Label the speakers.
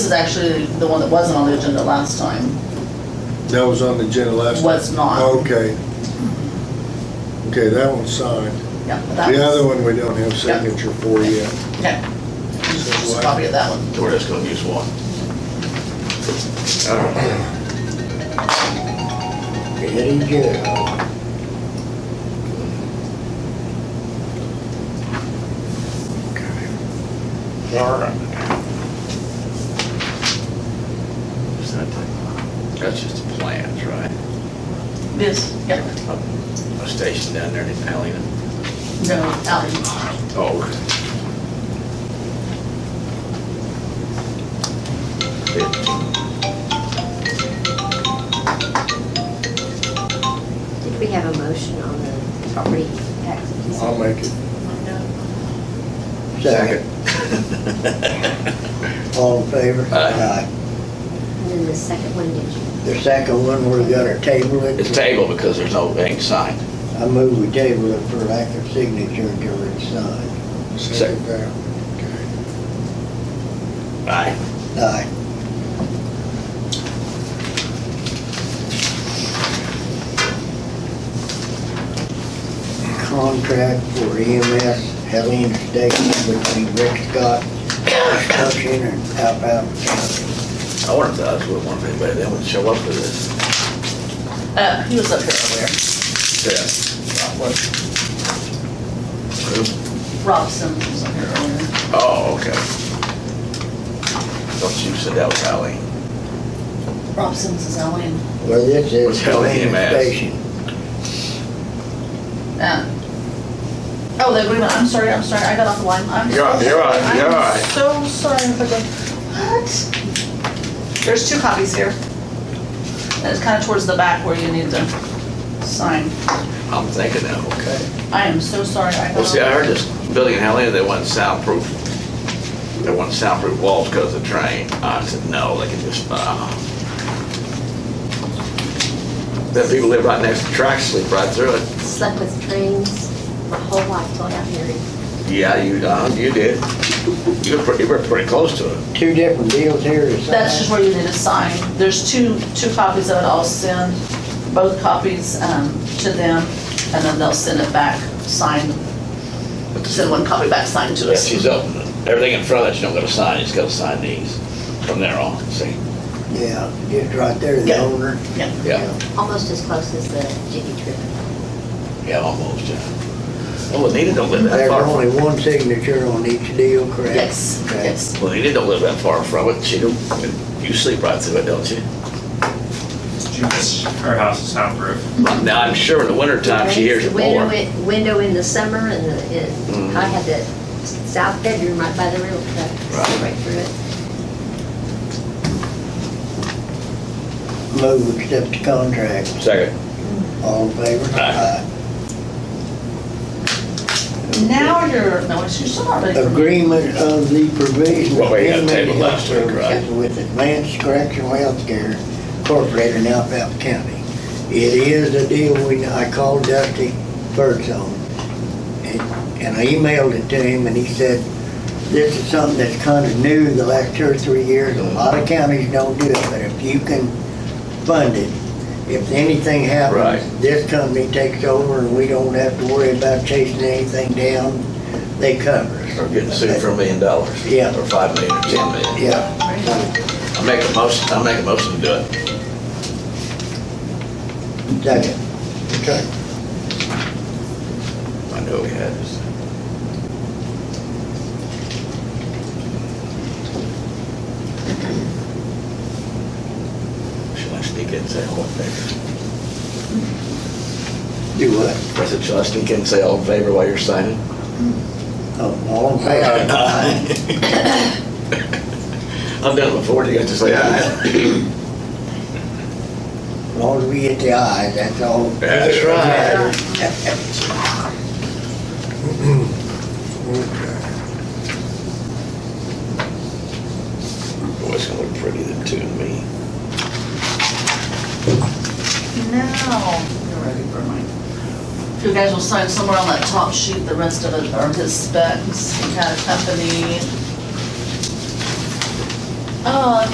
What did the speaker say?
Speaker 1: is actually the one that wasn't on the agenda last time.
Speaker 2: That was on the agenda last.
Speaker 1: Was not.
Speaker 2: Okay. Okay, that one's signed.
Speaker 1: Yeah. but that
Speaker 2: The other
Speaker 1: was-
Speaker 2: one we don't have signature for yet.
Speaker 1: Okay. Just a copy of that one.
Speaker 3: We're just gonna use one.
Speaker 4: Very good. All right.
Speaker 3: Is that the- That's just the plans, right?
Speaker 1: This, yeah,
Speaker 3: A station down there in Alien.
Speaker 1: no, Ally.
Speaker 3: Oh.
Speaker 5: Did we have a motion on the property tax?
Speaker 2: I'll make it.
Speaker 4: Second, all in favor?
Speaker 3: Aye.
Speaker 5: And then the second one, did you?
Speaker 4: Aye. The second one, we're gonna table it.
Speaker 3: It's tabled because there's no, it ain't signed.
Speaker 4: I move we table it for lack of signature until it's signed.
Speaker 3: Second.
Speaker 2: that. Okay.
Speaker 3: Aye.
Speaker 4: Aye. Contract for EMS Helene Station between Rick Scott Construction and Alphaband County.
Speaker 3: I wonder if the others would want to, but they wouldn't show up for this.
Speaker 1: Uh, he was up here earlier,
Speaker 3: Yeah.
Speaker 1: Rob Simmons was up here earlier.
Speaker 3: Oh, okay. Don't you said that was Alien.
Speaker 1: Rob Simmons is Ally.
Speaker 4: Well, this
Speaker 3: What's
Speaker 4: is
Speaker 3: Helene
Speaker 4: Helene
Speaker 3: EMS?
Speaker 4: Station.
Speaker 1: Uh, Oh, the agreement, I'm sorry, I'm sorry, I got off the line, I'm so
Speaker 3: You're all right,
Speaker 1: sorry.
Speaker 3: you're all right, you're all right.
Speaker 1: I'm so sorry, I'm like, what? There's two copies here. And it's kind of towards the back where you need to sign.
Speaker 3: I'm thinking that, okay.
Speaker 1: I am so sorry, I got.
Speaker 3: Well, see,
Speaker 1: off-
Speaker 3: I heard this building in Alien, they want soundproof, they want soundproof walls because of the train. I said, no, they can just, uh. Then people live right next to the tracks, sleep right through it.
Speaker 5: Slept with trains my whole life till I got married.
Speaker 3: Yeah, you, uh, you did. You were pretty, you were pretty close to it.
Speaker 4: Two different deals here to sign.
Speaker 1: That's just where you need to sign. There's two, two copies of it, I'll send both copies, um, to them, and then they'll send it back, signed. Send one copy back signed to
Speaker 3: Yeah,
Speaker 1: us.
Speaker 3: she's open. Everything in front of that, she don't gotta sign, she's gotta sign these from there on, see?
Speaker 4: Yeah, just right there, the
Speaker 1: Yeah.
Speaker 4: owner.
Speaker 1: Yeah.
Speaker 3: Yeah,
Speaker 5: Almost as close as the Jiffy Trip.
Speaker 3: yeah, almost, yeah. Oh, Anita don't live that
Speaker 4: There's
Speaker 3: far from
Speaker 4: only one signature on each deal, correct?
Speaker 1: Yes,
Speaker 4: Okay.
Speaker 1: yes.
Speaker 3: Well, Anita don't live that far from it, she don't, you sleep right through it, don't you?
Speaker 6: Our house is soundproof.
Speaker 3: Now, I'm sure in the wintertime, she hears it more. Mm-hmm.
Speaker 5: Window in- Window in the summer and the, and I had the south bedroom right by the railroad track,
Speaker 3: Right.
Speaker 5: see right through it.
Speaker 4: Move, we accept the contract.
Speaker 3: Second.
Speaker 4: All in favor?
Speaker 3: Aye.
Speaker 1: Now you're, no, it's- you're still not ready for me.
Speaker 4: Agreement of the provision.
Speaker 3: Well,
Speaker 4: of
Speaker 3: we got
Speaker 4: inmate
Speaker 3: tabled
Speaker 4: health
Speaker 3: last week, right?
Speaker 4: services With Advanced Correctional Healthcare Incorporated in Alphaba County. It is a deal we, I called Dusty Birdsong, and and I emailed it to him, and he said, this is something that's kind of new the last two or three years. A lot of counties don't do it, but if you can fund it, if anything
Speaker 3: Right.
Speaker 4: happens, this company takes over and we don't have to worry about chasing anything down. They cover us.
Speaker 3: Or getting sued for a million dollars.
Speaker 4: Yeah.
Speaker 3: Or five million, or ten million.
Speaker 4: Yeah,
Speaker 3: I make a motion, I make a motion to do it.
Speaker 4: second. Okay.
Speaker 3: I know we had this. Should I sneak in and say all in favor?
Speaker 4: Do what?
Speaker 3: I said, should I sneak in and say all in favor while you're signing?
Speaker 4: Oh, All in favor?
Speaker 3: I've done it before, you guys just say aye.
Speaker 4: As long as we get the ayes, that's all.
Speaker 3: That's Boy, it's gonna look pretty, the two of me.
Speaker 1: Now, you're ready for mine. You guys will sign somewhere on that top sheet, the rest of it are his specs, kind of company. Oh,